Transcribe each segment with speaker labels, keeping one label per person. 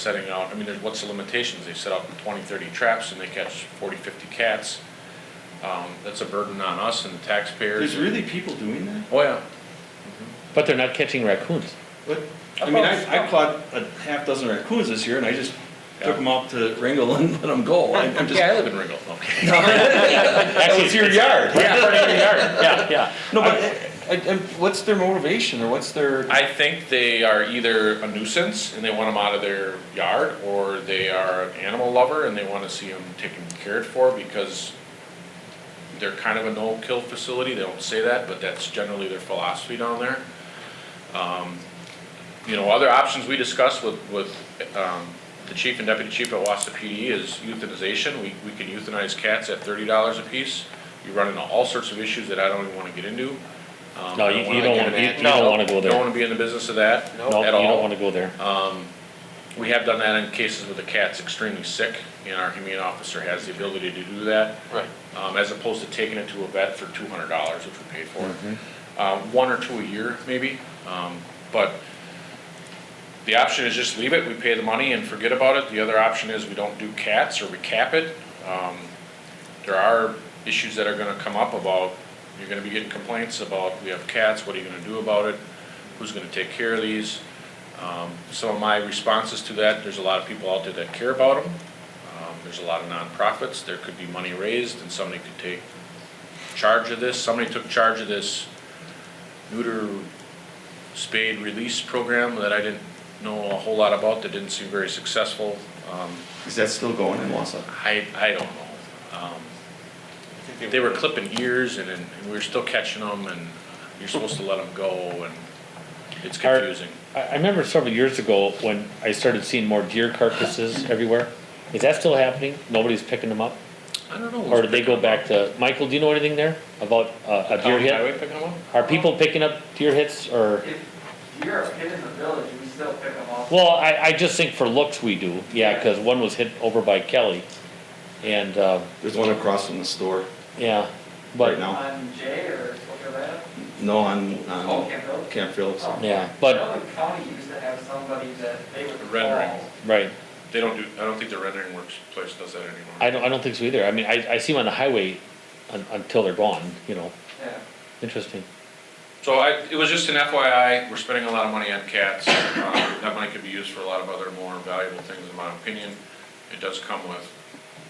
Speaker 1: setting out, I mean, there's, what's the limitations? They set out 20, 30 traps and they catch 40, 50 cats. Um, that's a burden on us and the taxpayers.
Speaker 2: There's really people doing that?
Speaker 1: Oh, yeah.
Speaker 3: But they're not catching raccoons.
Speaker 2: What? I mean, I, I caught a half dozen raccoons this year and I just took them out to wrangle and let them go. I- I'm just.
Speaker 1: Yeah, I live in Ringgold, okay.
Speaker 3: Actually,
Speaker 2: it's your yard.
Speaker 3: Yeah, in front of your yard. Yeah, yeah.
Speaker 2: No, but I, I, what's their motivation or what's their?
Speaker 1: I think they are either a nuisance and they want them out of their yard, or they are an animal lover and they want to see them taken cared for because they're kind of a no-kill facility. They don't say that, but that's generally their philosophy down there. Um, You know, other options we discussed with, with um, the chief and deputy chief at Wassa PD is euthanization. We, we can euthanize cats at thirty dollars apiece. You run into all sorts of issues that I don't even want to get into. Um,
Speaker 3: No,
Speaker 1: I
Speaker 3: you- you
Speaker 1: wanna
Speaker 3: don't
Speaker 1: get
Speaker 3: wanna-
Speaker 1: into
Speaker 3: you-
Speaker 1: that.
Speaker 3: you don't wanna go there.
Speaker 1: Don't want to be in the business of that
Speaker 3: No, you
Speaker 1: at
Speaker 3: don't
Speaker 1: all.
Speaker 3: wanna go there.
Speaker 2: Uh.
Speaker 1: We have done that in cases where the cat's extremely sick, and our humane officer has the ability to do that.
Speaker 4: Right.
Speaker 1: Um, as opposed to taking it to a vet for two hundred dollars, which we paid for. Um, one or two a year, maybe, um, but the option is just leave it, we pay the money and forget about it. The other option is we don't do cats or we cap it. Um, there are issues that are gonna come up about, you're gonna be getting complaints about, we have cats, what are you gonna do about it? Who's gonna take care of these? Um, some of my responses to that, there's a lot of people out there that care about them. Um, there's a lot of nonprofits, there could be money raised and somebody could take charge of this. Somebody took charge of this neuter spade release program that I didn't know a whole lot about, that didn't seem very successful. Um,
Speaker 2: Is that still going in Wausau?
Speaker 1: I, I don't know. Um, They were clipping ears and, and we were still catching them and you're supposed to let them go and it's
Speaker 3: Are-
Speaker 1: confusing.
Speaker 3: I, I remember several years ago when I started seeing more deer carcasses everywhere. Is that still happening? Nobody's picking them up?
Speaker 1: I don't know.
Speaker 3: Or did they go back to, Michael, do you know anything there about uh, a deer
Speaker 1: County
Speaker 3: hit?
Speaker 1: highway picking 'em up?
Speaker 3: Are people picking up deer hits or?
Speaker 5: If you're a kid in the village, we still pick them up.
Speaker 3: Well, I, I just think for looks we do, yeah, cause one was hit over by Kelly. And, uh,
Speaker 2: There's one across from the store
Speaker 3: yeah,
Speaker 2: right
Speaker 3: but,
Speaker 2: now.
Speaker 5: On J or whatever.
Speaker 2: No, on,
Speaker 5: Oh,
Speaker 2: on
Speaker 5: Camp Hill?
Speaker 2: Camp Phillips.
Speaker 3: yeah, but,
Speaker 5: Shelby County used to have somebody that they would
Speaker 1: Rendering.
Speaker 5: call.
Speaker 3: right.
Speaker 1: They don't do, I don't think the rendering works place does that anymore.
Speaker 3: I don't, I don't think so either. I mean, I, I see them on the highway un, until they're gone, you know.
Speaker 5: Yeah.
Speaker 3: Interesting.
Speaker 1: So I, it was just an FYI, we're spending a lot of money on cats. Um, That money could be used for a lot of other more valuable things, in my opinion. It does come with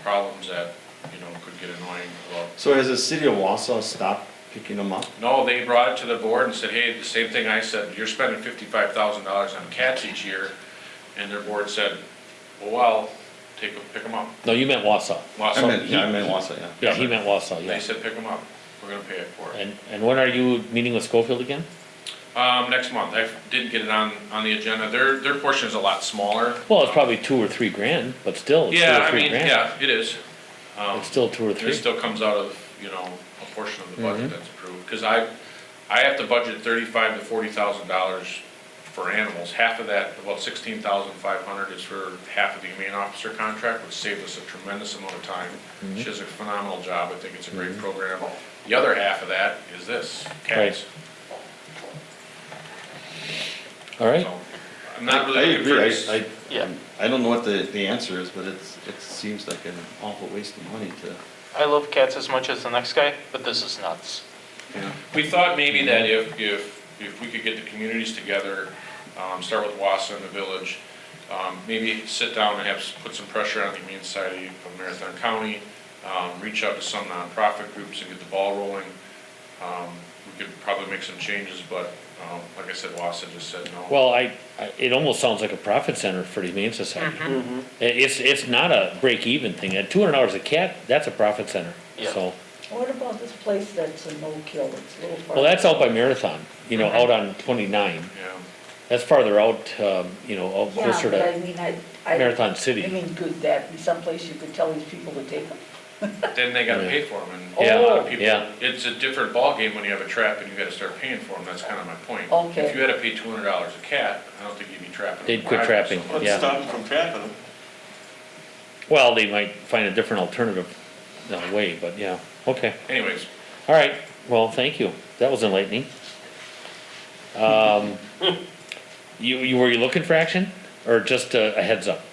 Speaker 1: problems that, you know, could get annoying. Well,
Speaker 2: So has the city of Wausau stopped picking them up?
Speaker 1: No, they brought it to the board and said, hey, the same thing I said, you're spending fifty-five thousand dollars on cats each year. And their board said, well, well, take, 'em- pick them up.
Speaker 3: No, you meant Wausau.
Speaker 1: Well,
Speaker 2: I
Speaker 1: so-
Speaker 2: meant, yeah, I meant Wausau, yeah.
Speaker 3: Yeah, he meant Wausau,
Speaker 1: They
Speaker 3: yeah.
Speaker 1: said, pick them up, we're gonna pay it for it.
Speaker 3: And, and when are you meeting with Schofield again?
Speaker 1: Um, next month, I didn't get it on, on the agenda. Their, their portion is a lot smaller.
Speaker 3: Well, it's probably two or three grand, but still, it's two
Speaker 1: Yeah,
Speaker 3: or
Speaker 1: I
Speaker 3: three
Speaker 1: mean,
Speaker 3: grand.
Speaker 1: yeah, it is. Um,
Speaker 3: It's still two or
Speaker 1: and it
Speaker 3: three.
Speaker 1: still comes out of, you know, a portion of the
Speaker 3: Mm-hmm.
Speaker 1: budget that's approved, cause I, I have to budget thirty-five to forty thousand dollars for animals, half of that, about sixteen thousand five hundred is for half of the humane officer contract, which saved us a tremendous amount of time.
Speaker 3: Mm-hmm.
Speaker 1: She does a phenomenal job, I think it's a great program. The other half of that is this, cats,
Speaker 3: Right. All right,
Speaker 1: so, I'm not
Speaker 2: I
Speaker 1: really looking for
Speaker 2: agree. I-
Speaker 1: this.
Speaker 2: I, um,
Speaker 4: Yeah,
Speaker 2: I don't know what the, the answer is, but it's, it seems like an awful waste of money to.
Speaker 4: I love cats as much as the next guy, but this is nuts.
Speaker 1: We thought maybe that if, if, if we could get the communities together, um, start with Wassa and the village, um, maybe sit down and have, s- put some pressure on the Humane Society of Marathon County, um, reach out to some nonprofit groups and get the ball rolling. Um, we could probably make some changes, but, um, like I said, Wassa just said no.
Speaker 3: well, I, I- it almost sounds like a profit center for the Humane Society.
Speaker 6: Mm-hmm.
Speaker 3: I- It's, it's not a break-even thing. At two hundred dollars a cat, that's a profit center,
Speaker 4: Yeah.
Speaker 3: so.
Speaker 6: What about this place that's a no-kill, it's a little far?
Speaker 3: Well, that's out by Marathon, you
Speaker 6: Mm-hmm.
Speaker 3: know, out on twenty-nine.
Speaker 1: Yeah,
Speaker 3: That's farther out, um, you know, out
Speaker 6: Yeah,
Speaker 3: closer
Speaker 6: but I
Speaker 3: to
Speaker 6: mean, I, I.
Speaker 3: Marathon
Speaker 6: I
Speaker 3: City.
Speaker 6: mean, could that be someplace you could tell these people to take them?
Speaker 1: then they gotta pay for them and
Speaker 3: Yeah,
Speaker 1: a lot of people,
Speaker 3: yeah.
Speaker 1: it's a different ballgame when you have a trap and you gotta start paying for them, that's kinda my point.
Speaker 6: Okay.
Speaker 1: If you had to pay two hundred dollars a cat, I don't think you'd be trapping.
Speaker 3: They'd quit
Speaker 1: them.
Speaker 3: trapping,
Speaker 7: Let's
Speaker 3: yeah.
Speaker 7: stop them from trapping them.
Speaker 3: Well, they might find a different alternative uh, way, but yeah, okay.
Speaker 1: Anyways,
Speaker 3: All right, well, thank you. That was enlightening. Um, you, you, were you looking for action? or just a a heads up.